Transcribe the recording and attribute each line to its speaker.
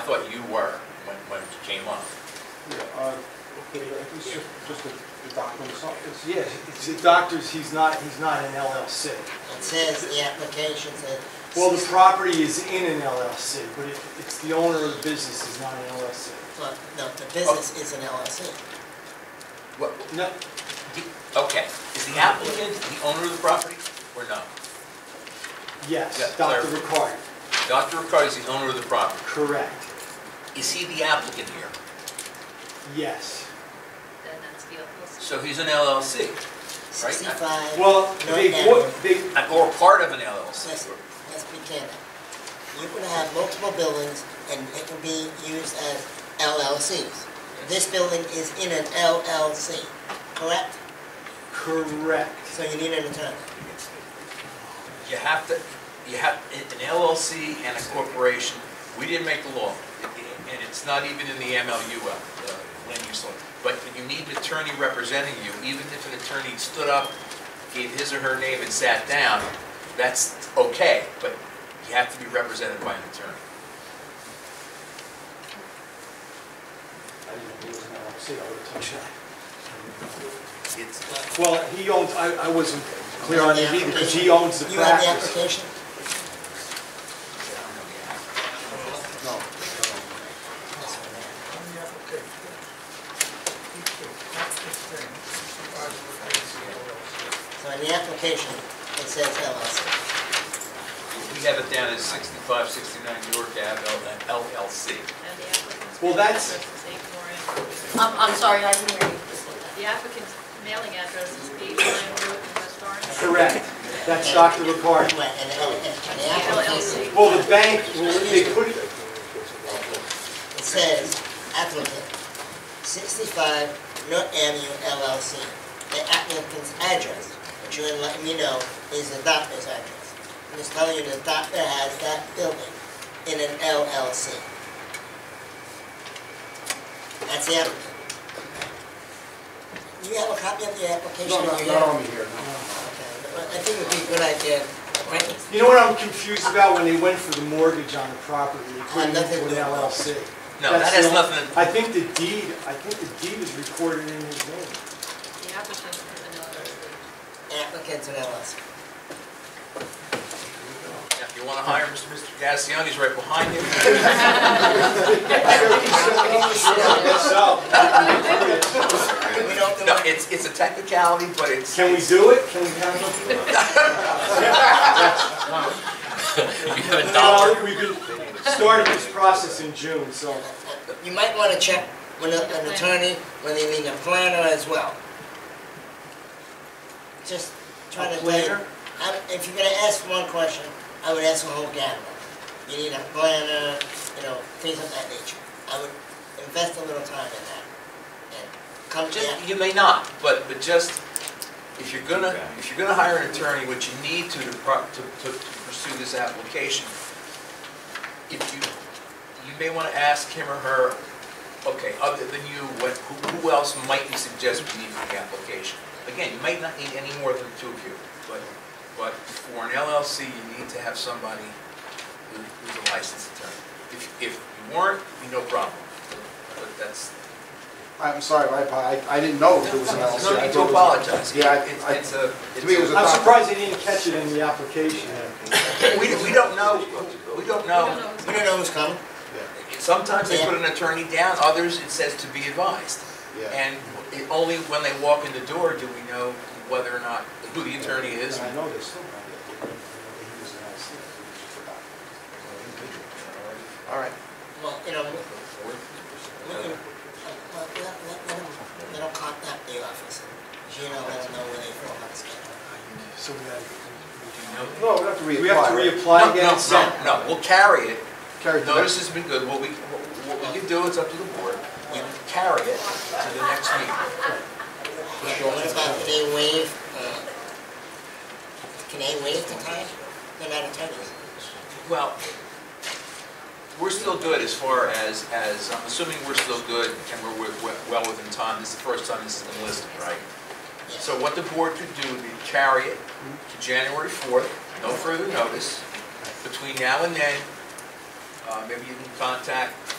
Speaker 1: thought you were when, when it came up.
Speaker 2: Yeah, uh, okay, I think it's just- just the the document itself. It's-
Speaker 3: Yeah, it's the doctors, he's not, he's not an LLC.
Speaker 4: It says the application says.
Speaker 3: Well, the property is in an LLC, but it- it's the owner of the business is not an LLC.
Speaker 4: Well, No, the business is an LLC.
Speaker 1: What,
Speaker 3: No,
Speaker 1: okay, is the applicant the owner of the property or no?
Speaker 3: yes,
Speaker 1: Yeah,
Speaker 3: Dr.
Speaker 1: clar-
Speaker 3: Ricard,
Speaker 1: Dr. Ricardi's the owner of the property.
Speaker 3: correct,
Speaker 1: Is he the applicant here?
Speaker 3: yes.
Speaker 5: then that's vehicles.
Speaker 1: So he's an LLC,
Speaker 4: Sixty-five.
Speaker 3: Well, they, wa- they,
Speaker 1: or part of an LLC.
Speaker 4: Listen, let's be candid. You're gonna have multiple buildings and it can be used as LLCs. This building is in an LLC, correct?
Speaker 3: correct,
Speaker 4: So you need an attorney.
Speaker 1: You have to, you have, an LLC and a corporation, we didn't make the law, and it's not even in the MLU, uh, uh, land use law. But you need an attorney representing you, even if an attorney stood up, gave his or her name and sat down, that's okay, but you have to be represented by an attorney.
Speaker 3: I didn't know he was an LLC, I would have touched that.
Speaker 1: It's,
Speaker 3: Well, he owns, I, I wasn't clear on it either, because he owns the
Speaker 4: You have the
Speaker 3: practice.
Speaker 4: application?
Speaker 3: No.
Speaker 4: So in the application, it says LLC.
Speaker 1: we have it down as 65, 69 York Ave, LLC.
Speaker 3: Well, that's-
Speaker 6: I'm, I'm sorry, I didn't hear you.
Speaker 5: The applicant's mailing address is 89 Road in West Orange.
Speaker 3: Correct, that's Dr. Ricard.
Speaker 4: Right, and, and, and the application,
Speaker 5: LLC.
Speaker 3: Well, the bank, well, they put,
Speaker 4: it says applicant, sixty-five North Avenue LLC. The applicant's address, but you didn't let me know is the doctor's address. I'm just telling you, the doctor has that building in an LLC. That's the applicant. Do you have a copy of the application?
Speaker 2: No, not,
Speaker 4: You
Speaker 2: not
Speaker 4: have-
Speaker 2: on here, no.
Speaker 4: Okay, but I think it would be a good idea, right?
Speaker 3: You know what I'm confused about when they went for the mortgage on the property, they put it into an LLC.
Speaker 1: No, that
Speaker 3: That's
Speaker 1: has
Speaker 3: the-
Speaker 1: nothing,
Speaker 3: I think the deed, I think the deed is recorded in his name.
Speaker 5: The applicant is an LLC.
Speaker 4: Applicant's an LLC.
Speaker 1: Now, if you want to hire Mr. Mr. Gassioni's right behind you.
Speaker 3: So,
Speaker 4: We don't do
Speaker 1: No,
Speaker 4: it.
Speaker 1: it's, it's a technicality, but it's, you
Speaker 3: can we do it? Can we have it?
Speaker 1: have a dollar.
Speaker 3: Well, we could start this process in June, so,
Speaker 4: You might want to check with a- an attorney, whether you need a planner as well. Just try to.
Speaker 3: A planner?
Speaker 4: I- If you're gonna ask one question, I would ask a whole gamut. You need a planner, you know, things of that nature. I would invest a little time in that. And come to
Speaker 1: Just,
Speaker 4: that.
Speaker 1: you may not, but, but just, if you're gonna, if you're gonna hire an attorney, what you need to, to, pro- to to- to pursue this application, if you, you may want to ask him or her, okay, other than you, what, who, who else might you suggest we need for the application? Again, you might not need any more than two of you, but, but for an LLC, you need to have somebody who- who's a licensed attorney. If, if you weren't, you no problem, but that's,
Speaker 2: I'm sorry, I, I- I didn't know if it was an LLC.
Speaker 1: no
Speaker 2: I
Speaker 1: need
Speaker 2: thought
Speaker 1: to
Speaker 2: it was-
Speaker 1: apologize.
Speaker 2: Yeah, I-
Speaker 1: It's-
Speaker 2: I-
Speaker 1: It's a,
Speaker 2: to me, it was
Speaker 1: it's
Speaker 2: a-
Speaker 3: I'm surprised they didn't catch it in the application.
Speaker 1: a- we, we don't know, we don't
Speaker 5: We don't
Speaker 1: know.
Speaker 5: know who's
Speaker 4: We don't know who's coming.
Speaker 1: Sometimes they put an attorney down, others it says to be advised.
Speaker 2: Yeah.
Speaker 1: And it- only when they walk in the door do we know whether or not, who the attorney is.
Speaker 2: And I know they still have it. They didn't know that he was an LLC. It was just a document. All right.
Speaker 4: Well, you know, we- we can- uh, let, let, let them, let them contact the office. You know, let them know where they feel about this.
Speaker 3: So we gotta-
Speaker 2: No, we have to reapply.
Speaker 3: we have to
Speaker 2: right?
Speaker 3: reapply
Speaker 1: No,
Speaker 3: again.
Speaker 1: no, no, no, we'll carry it.
Speaker 2: Carry the-
Speaker 1: Notice has been good, what we, what we can do, it's up to the board. We can carry it to the next meeting.
Speaker 4: What about if they waive, uh, can they waive the time? They're not attorneys.
Speaker 1: Well, we're still good as far as, as, I'm assuming we're still good and we're wi- wi- well within time. This is the first time this has been listed, right?
Speaker 4: Yeah.
Speaker 1: So what the board could do would be carry it to January 4th, no further notice. Between now and then, uh, maybe you can contact